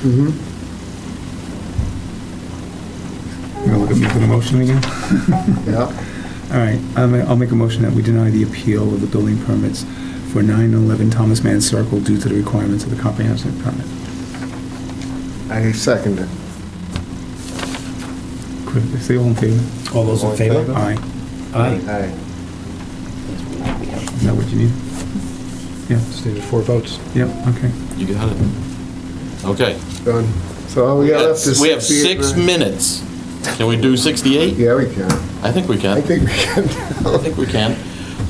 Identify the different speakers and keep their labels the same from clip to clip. Speaker 1: Mm-hmm. You're looking for the motion again?
Speaker 2: Yeah,
Speaker 1: All right, I'll ma- I'll make a motion that we deny the appeal of the building permits for 9 and 11 Thomas Mann Circle due to the requirements of the comprehensive permit.
Speaker 2: I second it.
Speaker 1: Quick, Say all in favor?
Speaker 3: All those in favor?
Speaker 1: Aye.
Speaker 3: Aye.
Speaker 2: Aye.
Speaker 1: Is that what you need?
Speaker 3: Just needed four votes.
Speaker 1: Yep, okay.
Speaker 4: You got it. Okay.
Speaker 2: Done. So all we got left is.
Speaker 4: We have six
Speaker 2: 68.
Speaker 4: minutes. Can we do 68?
Speaker 2: Yeah, we can.
Speaker 4: I think we can.
Speaker 2: I think we can.
Speaker 4: I think we can.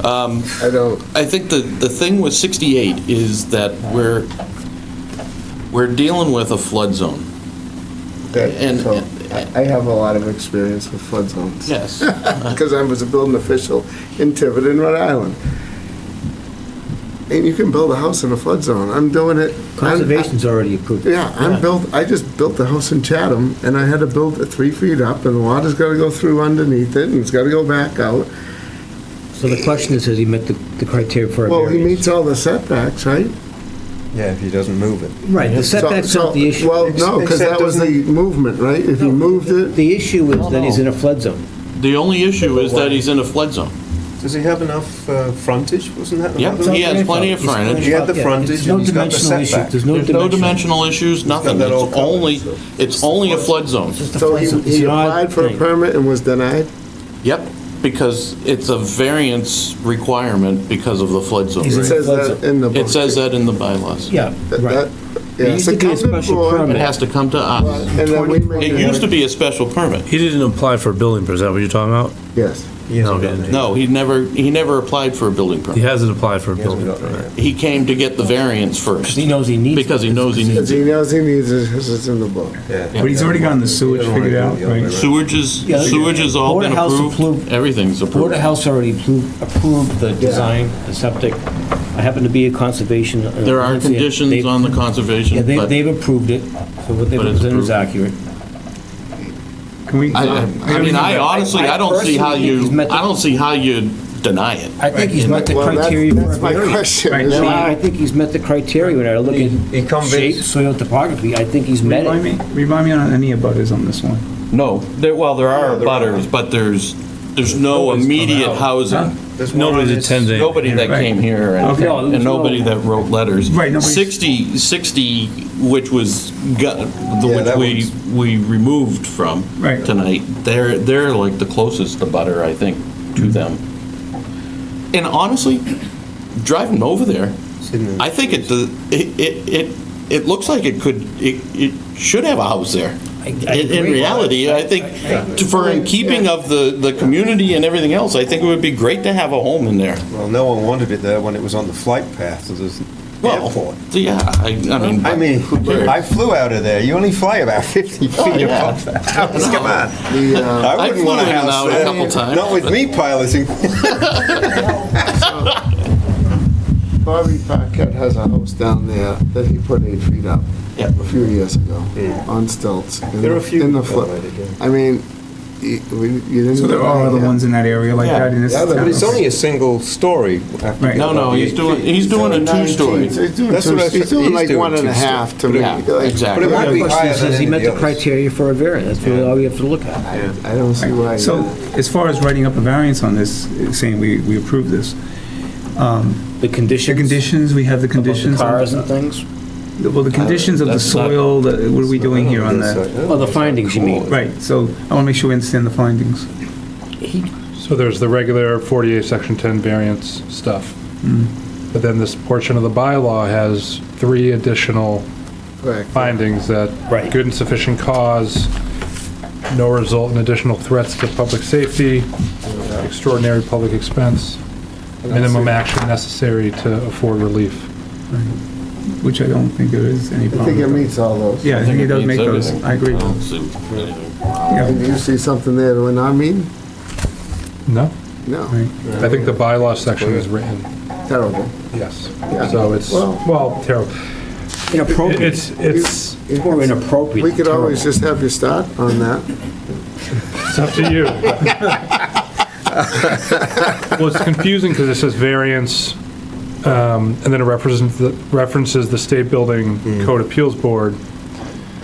Speaker 4: Um,
Speaker 2: I don't,
Speaker 4: I think the, the thing with 68 is that we're, we're dealing with a flood zone.
Speaker 2: that,
Speaker 4: And-
Speaker 2: so, I I have a lot of experience with flood zones.
Speaker 4: Yes.
Speaker 2: Because I was a building official in Tiverton, Rhode Island. And you can build a house in a flood zone. I'm doing it. I'm-
Speaker 3: Conservation's already approved.
Speaker 2: Yeah,
Speaker 4: Yeah.
Speaker 2: I'm built, I just built a house in Chatham, and I had to build it three feet up, and the water's gotta go through underneath it, and it's gotta go back out.
Speaker 3: So the question is, has he met the the criteria for a
Speaker 2: Well, he
Speaker 3: variance?
Speaker 2: meets all the setbacks, right?
Speaker 5: Yeah, if he doesn't move it.
Speaker 3: Right, the setback's
Speaker 2: So-
Speaker 3: not the
Speaker 2: so-
Speaker 3: issue.
Speaker 2: Well, no, because that was the movement, right? If you moved it,
Speaker 3: The issue
Speaker 4: No,
Speaker 3: is that he's
Speaker 4: no.
Speaker 3: in a flood zone.
Speaker 4: The only issue is that he's in a flood zone.
Speaker 5: Does he have enough uh, frontage? Wasn't that?
Speaker 4: Yeah,
Speaker 5: another-
Speaker 4: he has plenty of
Speaker 3: He's-
Speaker 4: frontage.
Speaker 5: He had the
Speaker 3: Yeah,
Speaker 5: frontage
Speaker 3: it's no
Speaker 5: and he's got the
Speaker 3: dimensional issue.
Speaker 5: setback.
Speaker 3: There's no
Speaker 4: There's no
Speaker 3: dimension.
Speaker 4: dimensional issues, nothing.
Speaker 5: that all
Speaker 4: It's
Speaker 5: covered,
Speaker 4: only,
Speaker 5: so-
Speaker 4: it's only a flood zone.
Speaker 3: It's just a
Speaker 2: so
Speaker 3: flood
Speaker 2: he,
Speaker 3: zone. It's
Speaker 2: he
Speaker 3: an odd
Speaker 2: applied for a
Speaker 3: thing.
Speaker 2: permit and was denied?
Speaker 4: Yep, because it's a variance requirement because of the flood zone.
Speaker 3: He's
Speaker 2: It says that in the book.
Speaker 4: It says that in the bylaws.
Speaker 3: Yeah,
Speaker 2: That-
Speaker 3: right.
Speaker 2: that- yeah,
Speaker 3: It used to
Speaker 2: so
Speaker 3: be a
Speaker 2: come
Speaker 3: special
Speaker 2: before-
Speaker 3: permit.
Speaker 4: It has to come to us.
Speaker 2: And then we make
Speaker 4: It
Speaker 2: it-
Speaker 4: used to be a special permit.
Speaker 6: He didn't apply for a building permit, is that what you're talking about?
Speaker 2: Yes.
Speaker 5: He hasn't
Speaker 6: No,
Speaker 5: gotten it.
Speaker 4: No, he never, he never applied for a building
Speaker 6: He
Speaker 4: permit.
Speaker 6: hasn't applied for a
Speaker 5: He hasn't
Speaker 6: building
Speaker 5: gotten it
Speaker 6: permit.
Speaker 5: yet.
Speaker 4: He came to get the variance first,
Speaker 3: He knows he needs it.
Speaker 4: because he knows he
Speaker 2: Because
Speaker 4: needs
Speaker 2: he
Speaker 4: it.
Speaker 2: knows he needs it, 'cause it's in the book.
Speaker 5: Yeah.
Speaker 1: But he's already gotten the sewage
Speaker 5: Yeah.
Speaker 1: figured out, right?
Speaker 4: Sewage is,
Speaker 3: Yeah.
Speaker 4: sewage has all
Speaker 3: Board
Speaker 4: been
Speaker 3: of Health
Speaker 4: approved,
Speaker 3: approved.
Speaker 4: everything's
Speaker 3: Board
Speaker 4: approved.
Speaker 3: of Health already approved, approved the design, the septic. I happen to be a conservation. uh,
Speaker 4: There are
Speaker 3: agency.
Speaker 4: conditions
Speaker 3: They've-
Speaker 4: on the
Speaker 3: Yeah,
Speaker 4: conservation,
Speaker 3: they,
Speaker 4: but
Speaker 3: they've approved it, so what they
Speaker 4: But it's
Speaker 3: presented is
Speaker 4: approved.
Speaker 3: accurate.
Speaker 1: Can we?
Speaker 4: I, I I mean, I honestly, I don't see how you, I don't see how you deny it.
Speaker 3: I think he's met the
Speaker 2: Well, that's-
Speaker 3: criteria for a
Speaker 2: That's my
Speaker 3: variance.
Speaker 2: question.
Speaker 1: Right,
Speaker 2: is
Speaker 3: No, I
Speaker 2: why-
Speaker 3: I think he's met the criteria when I look
Speaker 5: He- he
Speaker 3: at
Speaker 5: comes-
Speaker 3: shape, soil topography, I think he's met
Speaker 1: Remind me,
Speaker 3: it.
Speaker 1: remind me on any abutters on this one.
Speaker 4: No, there, well, there are
Speaker 5: there are.
Speaker 4: butters, but there's, there's no
Speaker 6: Nobody's come
Speaker 4: immediate
Speaker 6: out.
Speaker 4: housing.
Speaker 5: There's one
Speaker 6: Nobody's
Speaker 5: on this-
Speaker 6: attending.
Speaker 4: Nobody that
Speaker 1: Right.
Speaker 4: came here and,
Speaker 1: Okay.
Speaker 3: No,
Speaker 4: and
Speaker 3: there's no-
Speaker 4: nobody that wrote letters.
Speaker 1: Right, nobody's-
Speaker 4: 60, 60, which was, got- the-
Speaker 5: Yeah,
Speaker 4: which
Speaker 5: that
Speaker 4: we, we removed from
Speaker 1: Right.
Speaker 4: tonight, they're, they're like the closest to butter, I think, to
Speaker 1: Mm-hmm.
Speaker 4: them. And honestly, driving over there,
Speaker 5: in the-
Speaker 4: I think it, the- it, it, it it looks like it could, it, it should have a house there.
Speaker 3: I- I
Speaker 4: In in
Speaker 3: agree.
Speaker 4: reality, I think, to- for in keeping of the, the community and everything else, I think it would be great to have a home in there.
Speaker 5: Well, no one wanted it there when it was on the flight path to the
Speaker 4: Well,
Speaker 5: airport.
Speaker 4: yeah, I, I mean.
Speaker 5: I mean,
Speaker 4: who cares?
Speaker 5: I flew out of there. You only fly about 50 feet
Speaker 4: Oh, yeah.
Speaker 5: above that house. Come on.
Speaker 2: The, uh,
Speaker 5: I
Speaker 4: I
Speaker 5: wouldn't
Speaker 4: flew
Speaker 5: want a
Speaker 4: in and
Speaker 5: house
Speaker 4: out a
Speaker 5: there.
Speaker 4: couple times,
Speaker 5: Not with
Speaker 4: but-
Speaker 5: me piloting.
Speaker 2: Bobby Paquette has a house down there that he put eight feet up
Speaker 4: Yeah.
Speaker 2: a few years ago on stilts. in
Speaker 5: There are
Speaker 2: the-
Speaker 5: a few
Speaker 2: In the
Speaker 5: that
Speaker 2: flip.
Speaker 5: might have been.
Speaker 2: I mean, y- we- you didn't.
Speaker 1: So there are other ones in that area like that in this
Speaker 2: Yeah,
Speaker 1: town.
Speaker 2: but it's only
Speaker 5: a single story.
Speaker 1: Right.
Speaker 4: No, no, he's doing, he's doing a two-story.
Speaker 2: He's doing
Speaker 5: That's
Speaker 2: two-
Speaker 5: what I was-
Speaker 2: he's doing
Speaker 5: he's
Speaker 2: like
Speaker 5: doing
Speaker 2: one and a
Speaker 5: two story.
Speaker 2: half to
Speaker 5: But
Speaker 2: me.
Speaker 4: it-
Speaker 2: like- like-
Speaker 4: exactly.
Speaker 5: But it might
Speaker 3: The
Speaker 5: be
Speaker 3: question
Speaker 5: higher
Speaker 3: is,
Speaker 5: than
Speaker 3: has he
Speaker 5: any
Speaker 3: met
Speaker 5: of
Speaker 3: the
Speaker 5: the others.
Speaker 3: criteria for a variance? That's really all we have to look at.
Speaker 2: I I don't see why.
Speaker 1: So as far as writing up a variance on this, saying we, we approve this,
Speaker 3: The
Speaker 1: the
Speaker 3: conditions.
Speaker 1: conditions, we have the
Speaker 3: about the
Speaker 1: conditions. on-
Speaker 3: Cars and things?
Speaker 1: Well, the conditions of the
Speaker 4: That's not-
Speaker 1: soil, the- what are we doing here on
Speaker 5: Oh,
Speaker 1: that?
Speaker 3: Well, the findings, you mean.
Speaker 1: Right, so I want to make sure we understand the findings.
Speaker 3: He,
Speaker 7: So there's the regular 48, section 10 variance stuff. But then this portion of the bylaw has three additional
Speaker 2: Correct.
Speaker 7: findings that
Speaker 3: Right.
Speaker 7: good and sufficient cause, no result in additional threats to public safety, extraordinary public expense, minimum action necessary to afford relief.
Speaker 1: Which I don't think there is any
Speaker 2: I
Speaker 1: problem.
Speaker 2: think it
Speaker 1: with.
Speaker 2: meets all those.
Speaker 1: Yeah, I think it does make
Speaker 4: means
Speaker 1: those,
Speaker 4: everything.
Speaker 1: I agree.
Speaker 4: don't see anything.
Speaker 1: Yeah,
Speaker 2: Did you see something there that we're not meeting?
Speaker 7: No?
Speaker 2: No,
Speaker 1: right.
Speaker 7: I think the bylaw section is written,
Speaker 2: terrible.
Speaker 7: yes. So it's,
Speaker 2: Well-
Speaker 7: well, terrible.
Speaker 3: inappropriate.
Speaker 7: It's, it's,
Speaker 3: It's more inappropriate.
Speaker 2: We could
Speaker 3: than
Speaker 2: always just have you start on that.
Speaker 7: It's up to you. Well, it's confusing because it says variance, um, and then it represents, the- references the State Building Code Appeals Board,